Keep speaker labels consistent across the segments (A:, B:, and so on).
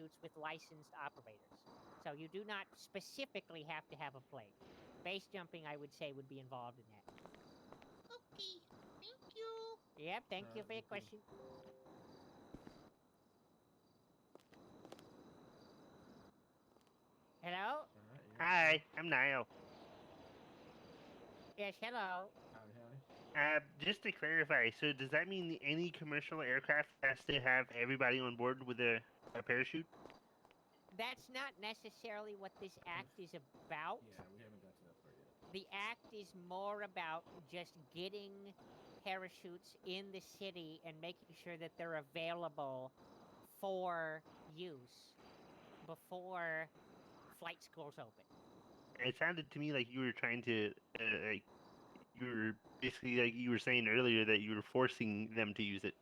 A: routes with licensed operators. So you do not specifically have to have a plane. Base jumping, I would say, would be involved in that.
B: Okay, thank you.
A: Yep, thank you
C: Uh,
A: for your
C: okay.
A: question. Hello?
C: Alright, yeah.
D: Hi, I'm Niall.
A: Yes, hello.
C: Howdy, howdy.
D: Uh, just to clarify, so does that mean any commercial aircraft has to have everybody on board with a, a parachute?
A: That's not necessarily what this act is about.
C: Yeah, we haven't got to that part yet.
A: The act is more about just getting parachutes in the city and making sure that they're available for use before flight schools open.
D: It sounded to me like you were trying to, uh, like, you were basically like you were saying earlier that you were forcing them to use it.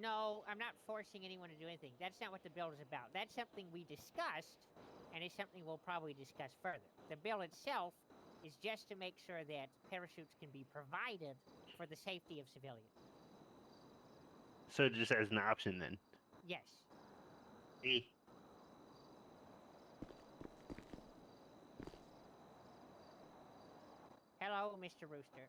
A: No, I'm not forcing anyone to do anything. That's not what the bill is about. That's something we discussed, and it's something we'll probably discuss further. The bill itself is just to make sure that parachutes can be provided for the safety of civilians.
D: So just as an option then.
A: Yes.
D: Eh.
A: Hello, Mr. Rooster.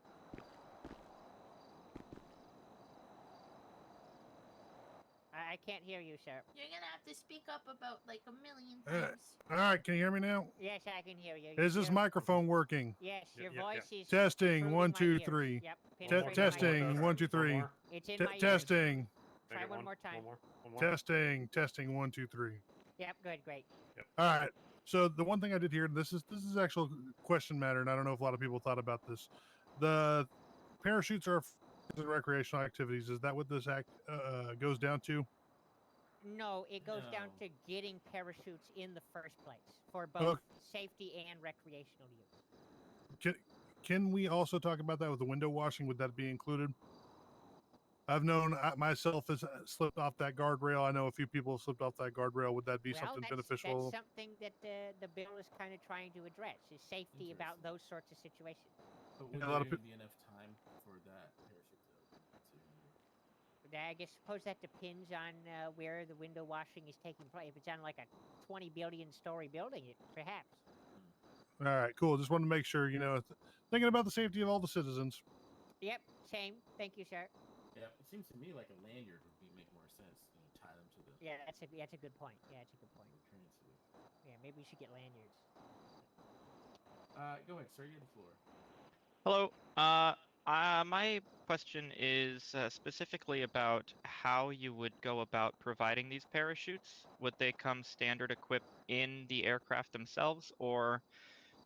A: I, I can't hear you, sir.
B: You're gonna have to speak up about like a million
E: Uh,
B: things.
E: All right, can you hear me now?
A: Yes, I can hear you.
E: Is this
A: Your-
E: microphone working?
A: Yes,
F: Yeah,
A: your
F: yeah, yeah.
A: voice is.
E: Testing,
A: through
E: one,
A: my
E: two,
A: ears.
E: three.
A: Yep.
E: Te-
A: penetrating my ears.
E: testing, one, two,
F: One
E: three.
F: more.
A: It's in
E: Te-
A: my ears.
E: testing,
A: Try
F: Make it
A: one more time.
F: One more. One more.
E: testing, testing, one, two, three.
A: Yep. Good. Great.
E: All right. So the one thing I did here, and this is this is actual question matter, and I don't know if a lot of people thought about this. The parachutes are f- and recreational activities. Is that what this act uh, goes down to?
A: No, it goes down
C: No.
A: to getting parachutes in the first place for both safety and recreational use.
E: Can we also talk about that with the window washing? Would that be included? I've known I, myself has uh, slipped off that guardrail. I know a few people have slipped off that guardrail. Would that be
A: well,
E: something
A: that's,
E: beneficial?
A: That's something that the, the bill is kind of trying to address is safety about
C: Interesting.
A: those sorts of situations.
C: But
E: Yeah,
C: would
E: a lot
C: there
E: of
C: even be enough time for that parachute to open? To...
A: But I guess suppose that depends on uh, where the window washing is taking place. If it's on like a 20 billion story building, it perhaps.
E: All right, cool. Just wanted to make sure, you know, th- thinking about the safety of all the citizens.
A: Yep, same. Thank you, sir.
C: Yeah, it seems to me like a lanyard would be make more sense. You know, tie them to the
A: Yeah, that's a that's a good point. Yeah, that's a good point.
C: the currency.
A: Yeah, maybe we should get lanyards.
C: Uh, go ahead, sir. You have the floor.
G: Hello. Uh, uh, my question is uh, specifically about how you would go about providing these parachutes. Would they come standard equipped in the aircraft themselves, or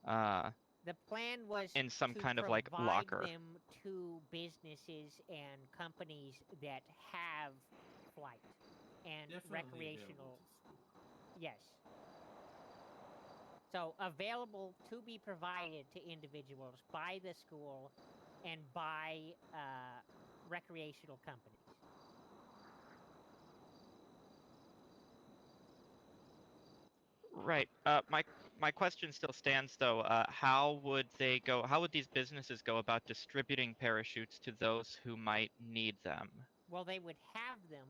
G: uh,
A: The plan was
G: in some
A: to
G: kind of like
A: provide
G: locker?
A: them to businesses and companies that have flight and
C: Definitely
A: recreational.
C: available to school.
A: Yes. So available to be provided to individuals by the school and by uh, recreational companies.
G: Right. Uh, my my question still stands though. Uh, how would they go? How would these businesses go about distributing parachutes to those who might need them?
A: Well, they would have them,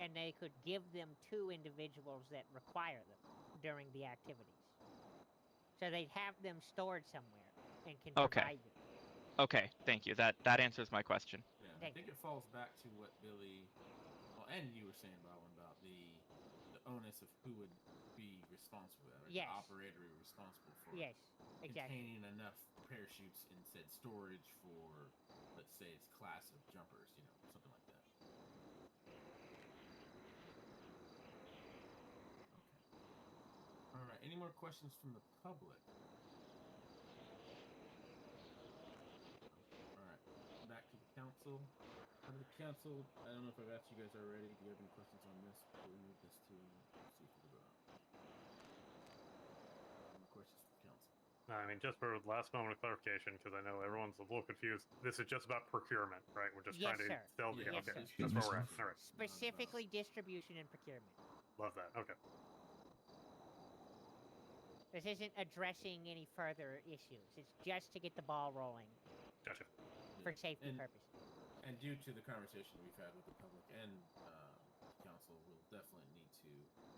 A: and they could give them to individuals that require them during the activities. So they'd have them stored somewhere and can
G: Okay.
A: provide them.
G: Okay. Thank you. That that answers my question.
C: Yeah, I
A: Thank
C: think
A: you.
C: it falls back to what Billy, well, and you were saying, Bowen, about the the onus of who would be responsible, or
A: Yes.
C: the operator would be responsible for
A: Yes, exactly.
C: containing enough parachutes in said storage for, let's say, its class of jumpers, you know, something like that. Okay. All right. Any more questions from the public? All right. Back to the council. How did the council? I don't know if I've asked you guys already. Do you have any questions on this? Before we move this to see if we go out. Any more questions from the council?
F: No, I mean, just for the last moment of clarification, because I know everyone's a little confused. This is just about procurement, right? We're just
A: Yes,
F: trying to
A: sir.
F: sell the.
A: Yeah, Yes,
F: Oh,
A: sir.
F: okay, that's where we're at. All right,
C: uh,
A: Specifically, distribution and procurement.
F: love that. Okay.
A: This isn't addressing any further issues. It's just to get the ball rolling
F: Gotcha.
A: for safety
C: And-
A: purposes.
C: And due to the conversation we've had with the public and um, council, we'll uh, definitely need to